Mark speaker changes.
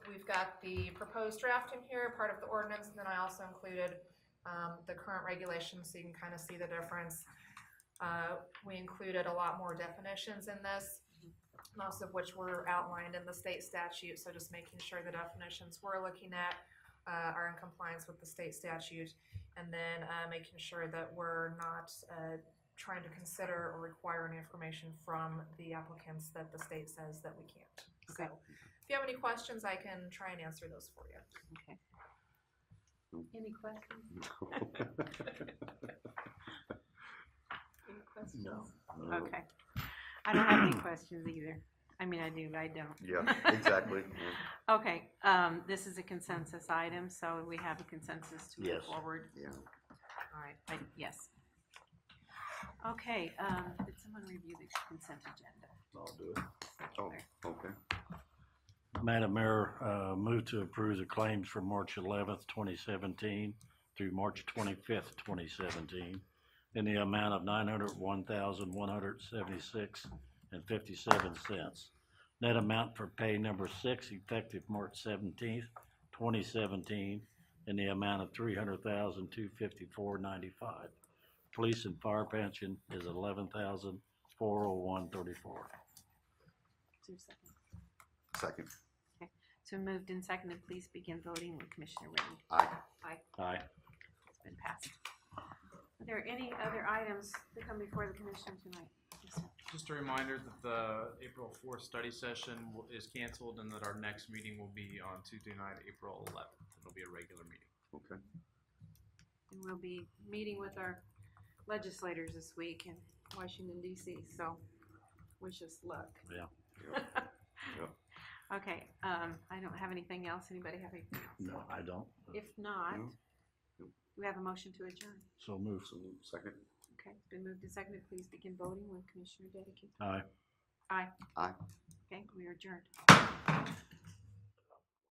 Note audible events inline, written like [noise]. Speaker 1: got the proposed draft in here, part of the ordinance, and then I also included um, the current regulations, so you can kind of see the difference. Uh, We included a lot more definitions in this, most of which were outlined in the state statute, so just making sure the definitions we're looking at uh, are in compliance with the state statute, and then uh, making sure that we're not uh, trying to consider or require any information from the applicants that the state says that we can't. So,
Speaker 2: Okay.
Speaker 1: if you have any questions, I can try and answer those for you.
Speaker 2: Okay. Any questions? Any questions? [laughs]
Speaker 3: No.
Speaker 2: Okay. I don't have any
Speaker 3: [clears throat]
Speaker 2: questions either. I mean, I do, but I don't.
Speaker 3: Yeah, exactly. Yeah.
Speaker 2: Okay, um, this is a consensus item, so we have a consensus to move
Speaker 3: Yes.
Speaker 2: forward.
Speaker 3: Yeah.
Speaker 2: All right, I, yes. Okay, um, did someone review the consent agenda?
Speaker 3: I'll do it. Oh, okay.
Speaker 4: Madam Mayor, uh, move to approve the claims for March eleventh, twenty seventeen through March twenty-fifth, twenty seventeen in the amount of nine hundred one thousand one hundred seventy-six and fifty-seven cents. Net amount for pay number six effective March seventeenth, twenty seventeen in the amount of three hundred thousand two fifty-four ninety-five. Police and fire pension is eleven thousand four oh one thirty-four.
Speaker 2: Is there a second?
Speaker 3: Second.
Speaker 2: So moved and seconded, please begin voting when Commissioner Ready.
Speaker 3: Aye.
Speaker 4: Aye.
Speaker 2: It's been passed. Are there any other items that come before the commission tonight? Yes, sir.
Speaker 5: Just a reminder that the April fourth study session w- is canceled and that our next meeting will be on Tuesday night, April eleventh. It'll be a regular meeting.
Speaker 3: Okay.
Speaker 2: And we'll be meeting with our legislators this week in Washington DC, so wish us luck.
Speaker 4: Yeah.
Speaker 2: [laughs] Okay, um, I don't have anything else. Anybody have anything else?
Speaker 4: No, I don't.
Speaker 2: If not,
Speaker 3: No.
Speaker 2: do we have a motion to adjourn?
Speaker 4: So move.
Speaker 3: So, Second.
Speaker 2: Okay, it's been moved and seconded. Please begin voting when Commissioner Dedekin.
Speaker 4: Aye.
Speaker 2: Aye.
Speaker 3: Aye.
Speaker 2: Okay, we are adjourned.